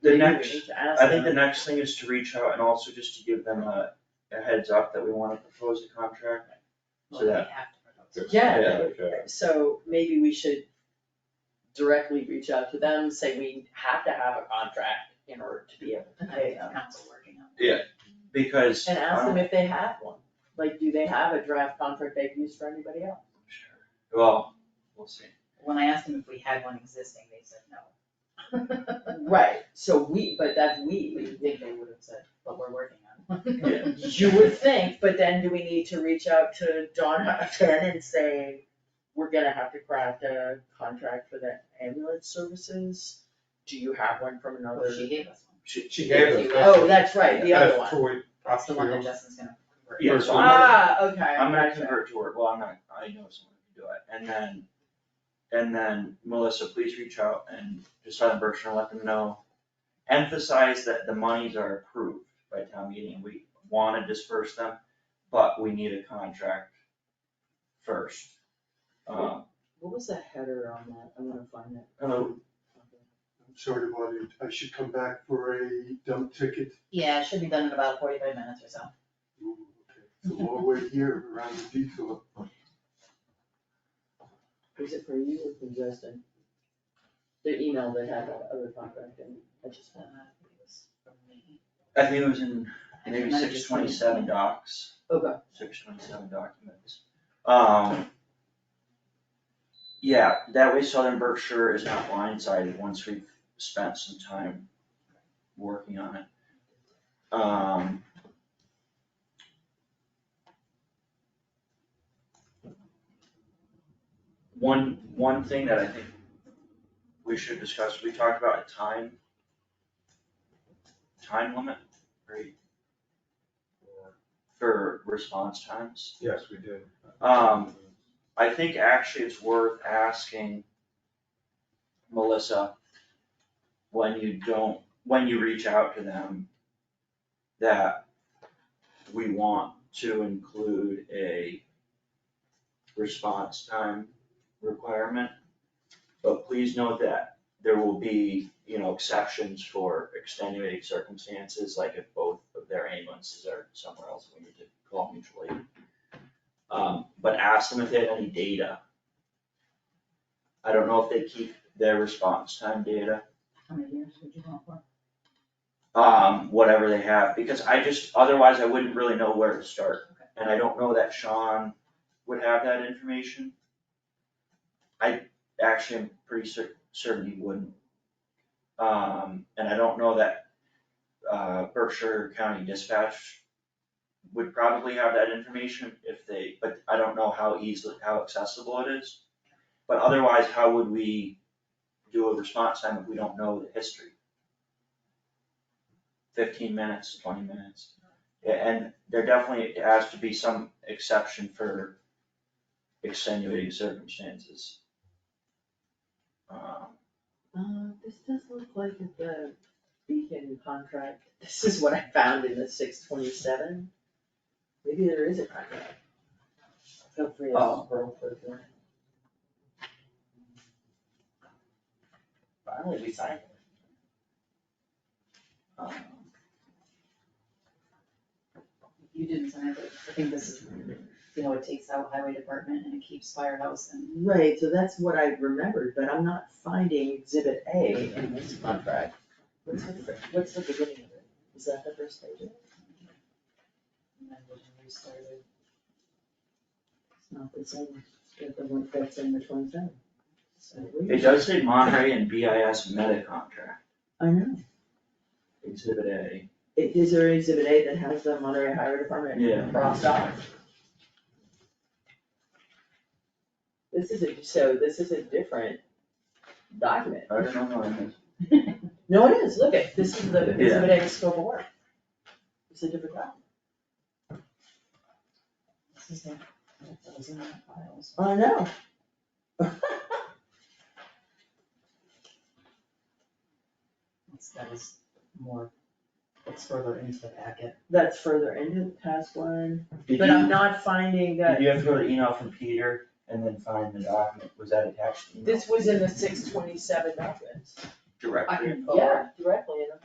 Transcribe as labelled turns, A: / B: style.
A: The
B: Maybe
A: next,
B: we need to
A: I
B: ask
A: think the
B: them.
A: next thing is to reach out and also just to give them a, a heads up that we wanna propose a contract.
B: Well, they
A: that-
B: have to propose.
A: Yeah.
B: Yeah,
C: Okay.
B: so maybe we should directly reach out to them, say we have to have a contract in order to be able to pay them.
D: Council working on
A: Because.
B: And ask them
A: um,
B: if they have one, like, do they have a draft contract they've used for anybody else?
A: sure. Well, we'll see.
D: it. When I asked them if we had one existing, they said no.
B: Right, so we, but that's we, we think they would have said.
D: But we're working on one.
A: Yeah.
B: You would think, but then do we need to reach out to Donna again and say, we're gonna have to craft a contract for the ambulance services? Do you have one from
D: Well,
B: another?
D: she gave us one.
C: She, she gave us. that.
B: Oh, that's right, the other
C: That's
B: one.
C: Troy,
D: That's the one that
C: Oxfield.
D: Justin's gonna. convert.
A: Yeah, so I'm gonna,
B: Ah, okay,
A: I'm gonna
B: gotcha.
A: convert to work, well, I'm not, I know someone who can do it, and then, and then Melissa, please reach out and just let Berkshire and let them know. Emphasize that the monies are approved by town meeting, we wanna disperse them, but we need a contract first. Um,
B: What was the header on that? I wanna find it.
A: hello,
E: I'm sorry to bother you, I should come back for a dump ticket.
D: Yeah, it should be done in about forty-five minutes or so. Uh,
E: Ooh, okay. It's a long way here around the detour.
B: Was it for you or for Justin? The email that had that other contract in, it. I just
D: Uh,
B: want.
D: it was for me.
A: I think it was in
D: Actually,
A: maybe
D: might have
A: six
D: just been-
A: twenty-seven docs.
B: Okay.
A: six twenty-seven documents. Um. Yeah, that way Southern Berkshire is not blindsided once we've spent some time working on it. Um. One, one thing that I think we should discuss, we talked about a time. Time limit, right, for response times.
C: Yes, we did.
A: Um, I think actually it's worth asking Melissa, when you don't, when you reach out to them, that we want to include a response time requirement. But please note that there will be, you know, exceptions for extenuating circumstances, like if both of their ambulances are somewhere else, we need to call mutual aid. Um, but ask them if they have any data. I don't know if they keep their response time data,
D: How many years would you want for?
A: um, whatever they have, because I just, otherwise I wouldn't really know where to start. And I don't know that Sean would have that information. I actually am pretty cer- certain he wouldn't. Um, and I don't know that, uh, Berkshire County Dispatch would probably have that information if they, but I don't know how easily, how accessible it is. But otherwise, how would we do a response time if we don't know the history? Fifteen minutes, twenty minutes, Yeah, and there definitely has to be some exception for extenuating circumstances. Um,
B: Uh, this does look like the Beacon contract. This is what I found in the six twenty-seven. Maybe there is a contract. Feel free to
A: Oh.
B: scroll for it. Finally, we signed it.
A: um,
D: You didn't sign it, but I think this is, you know, it takes out highway department and it keeps firehouse and
B: Right, so that's what I remembered, but I'm not finding exhibit A in this contract. What's the, fir- what's the beginning of it? Is that the first page?
D: and then we can restart it.
B: It's not the same, it's the one that's in the twenty-seven. So we-
A: It does say Monterey and BIS meta contract,
B: I know.
A: exhibit A.
B: It is there exhibit A that has the Monterey Highway
A: Yeah.
B: Department crossed off. This is a, so this is a different document.
A: I don't know, I think.
B: No, it is, look at, this is the
A: Yeah.
B: exhibit A scope of work. It's a different document.
D: This is the, that was in the files.
B: I know.
D: That's, that was more, it's further into the packet.
B: That's further into the past one,
A: Did
B: but um, I'm
A: you,
B: not finding
A: did
B: that.
A: you have to go to the email from Peter and then find the document, was that attached to the email?
B: This was in the six twenty-seven documents.
A: Directly.
D: I can
B: Yeah, directly in the